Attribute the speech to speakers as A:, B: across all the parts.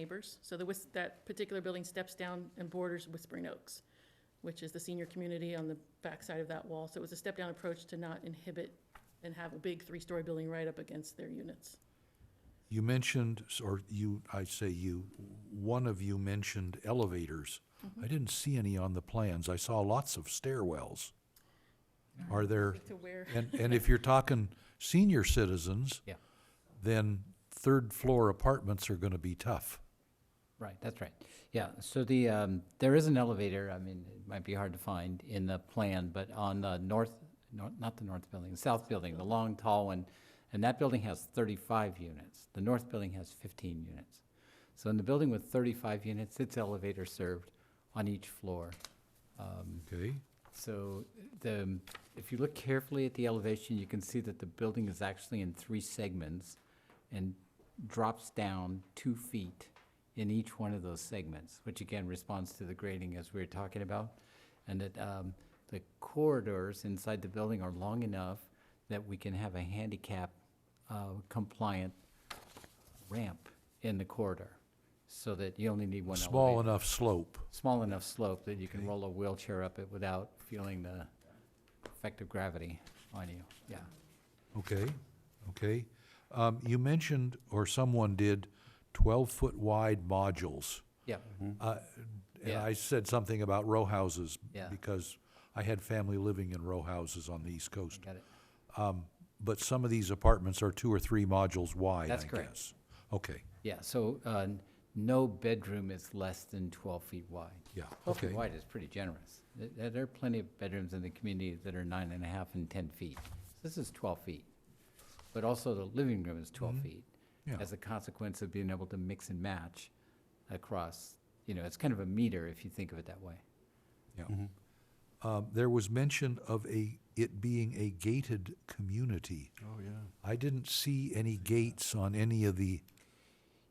A: neighbors. So the, Whis- that particular building steps down and borders Whispering Oaks, which is the senior community on the backside of that wall. So it was a step-down approach to not inhibit and have a big three-story building right up against their units.
B: You mentioned, or you, I say you, one of you mentioned elevators.
C: Mm-hmm.
B: I didn't see any on the plans. I saw lots of stairwells. Are there,
A: To where,
B: and, and if you're talking senior citizens,
C: Yeah,
B: then third floor apartments are gonna be tough.
C: right, that's right. Yeah, so the, um, there is an elevator, I mean, it might be hard to find in the plan, but on the north, nor- not the north building, the south building, the long, tall one, and that building has thirty-five units. The north building has fifteen units. So in the building with thirty-five units, it's elevator served on each floor. Um,
B: Okay,
C: So the, if you look carefully at the elevation, you can see that the building is actually in three segments and drops down two feet in each one of those segments, which again responds to the grading as we were talking about. And that um, the corridors inside the building are long enough that we can have a handicap uh, compliant ramp in the corridor, so that you only need one elevator
B: small enough slope.
C: small enough slope that you can roll a wheelchair up it without feeling the effect of gravity on you, yeah.
B: Okay, okay. Um, you mentioned, or someone did, twelve-foot wide modules.
C: Yeah,
B: Uh, And
C: Yeah.
B: I said something about row houses.
C: Yeah.
B: Because I had family living in row houses on the East
C: I
B: Coast.
C: got it.
B: But some of these apartments are two or three modules wide, I
C: That's
B: guess.
C: correct.
B: Okay,
C: Yeah, so, uh, n- no bedroom is less than twelve feet wide.
B: yeah,
C: Twelve
B: okay.
C: feet wide is pretty generous. Th- There, are plenty of bedrooms in the community that are nine and a half and ten feet. This is twelve feet. But also the living room is twelve feet.
B: Mm-hmm. Yeah.
C: As a consequence of being able to mix and match across, you know, it's kind of a meter if you think of it that way.
B: Yeah.
D: Mm-hmm.
B: Um, there was mention of a, it being a gated community.
D: Oh, yeah.
B: I didn't see any gates on any of the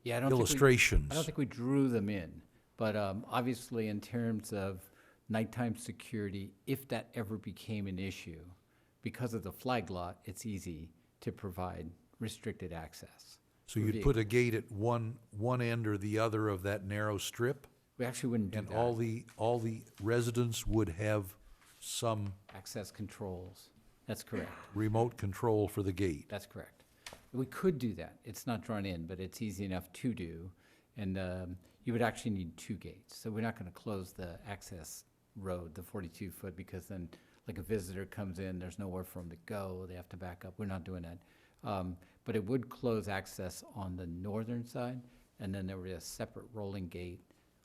C: Yeah, I don't think we-
B: illustrations.
C: I don't think we drew them in, but um, obviously in terms of nighttime security, if that ever became an issue, because of the flag lot, it's easy to provide restricted access.
B: So
C: for
B: you'd put a gate at one, one end or the other of that narrow strip?
C: We actually wouldn't do
B: And all
C: that.
B: the, all the residents would have some
C: Access controls. That's correct.
B: remote control for the gate.
C: That's correct. We could do that. It's not drawn in, but it's easy enough to do. And um, you would actually need two gates. So we're not going to close the access road, the 42 foot, because then like a visitor comes in, there's nowhere for them to go. They have to back up. We're not doing that. Um, But it would close access on the northern side. And then there would be a separate rolling gate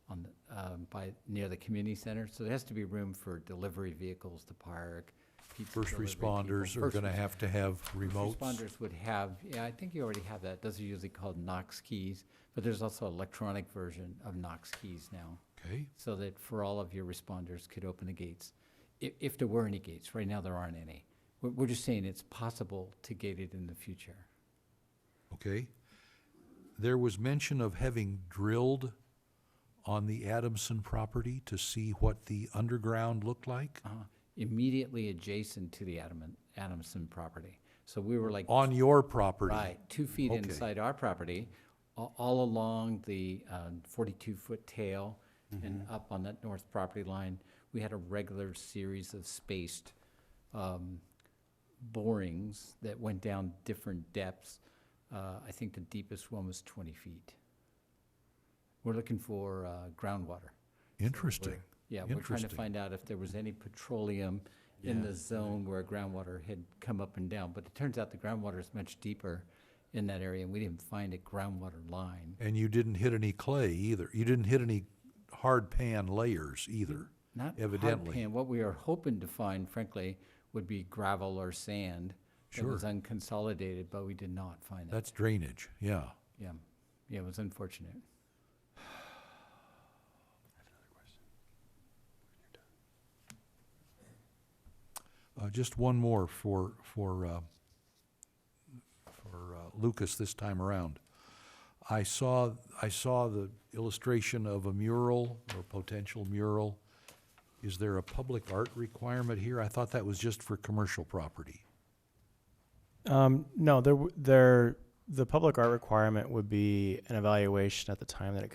C: on, the- um, by, near the community center. So there has to be room for delivery vehicles to park. pizza
B: First
C: delivery people.
B: responders are
C: First
B: gonna have to have remotes.
C: Responders would have, yeah, I think you already have that. Those are usually called Knox keys, but there's also electronic version of Knox keys now,
B: Okay,
C: so that for all of your responders could open the gates. If, if there were any gates, right now there aren't any. We're, we're just saying it's possible to gate it in the future.
B: okay. There was mention of having drilled on the Adamson property to see what the underground looked like?
C: Uh, Immediately adjacent to the Adamant, Adamson property. So we were like
B: On your property?
C: Right, two feet
B: Okay.
C: inside our property, a- all along the uh, forty-two-foot tail and
B: Mm-hmm.
C: up on that north property line, we had a regular series of spaced um, borings that went down different depths. Uh, I think the deepest one was twenty feet. We're looking for uh, groundwater.
B: Interesting.
C: Yeah, we're trying to
B: Interesting.
C: find out if there was any petroleum in the zone where groundwater had come up and down. But it turns out the groundwater is much deeper in that area, and we didn't find a groundwater line.
B: And you didn't hit any clay either. You didn't hit any hard pan layers either,
C: Not
B: evidently.
C: And what we are hoping to find, frankly, would be gravel or sand that was unconsolidated, but we did not find that.
B: That's drainage, yeah.
C: Yeah, yeah, it was unfortunate.
B: Uh, just one more for, for, uh, for uh, Lucas this time around. I saw, I saw the illustration of a mural or potential mural. Is there a public art requirement here? I thought that was just for commercial property.
E: Um, no, there, w- there, the public art requirement would be an evaluation at the time that it